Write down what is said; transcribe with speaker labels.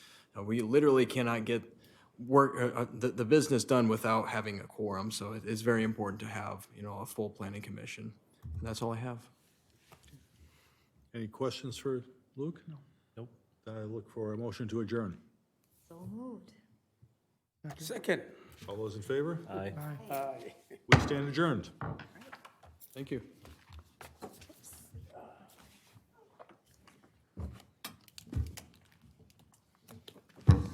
Speaker 1: Uh, We literally cannot get work, uh, uh, the, the business done without having a quorum, so it is very important to have, you know, a full planning commission. And that's all I have.
Speaker 2: Any questions for Luke? No.
Speaker 3: Nope.
Speaker 2: Then I look for a motion to adjourn.
Speaker 4: So moved.
Speaker 5: Second.
Speaker 2: All those in favor?
Speaker 3: Aye.
Speaker 2: We stand adjourned.
Speaker 1: Thank you.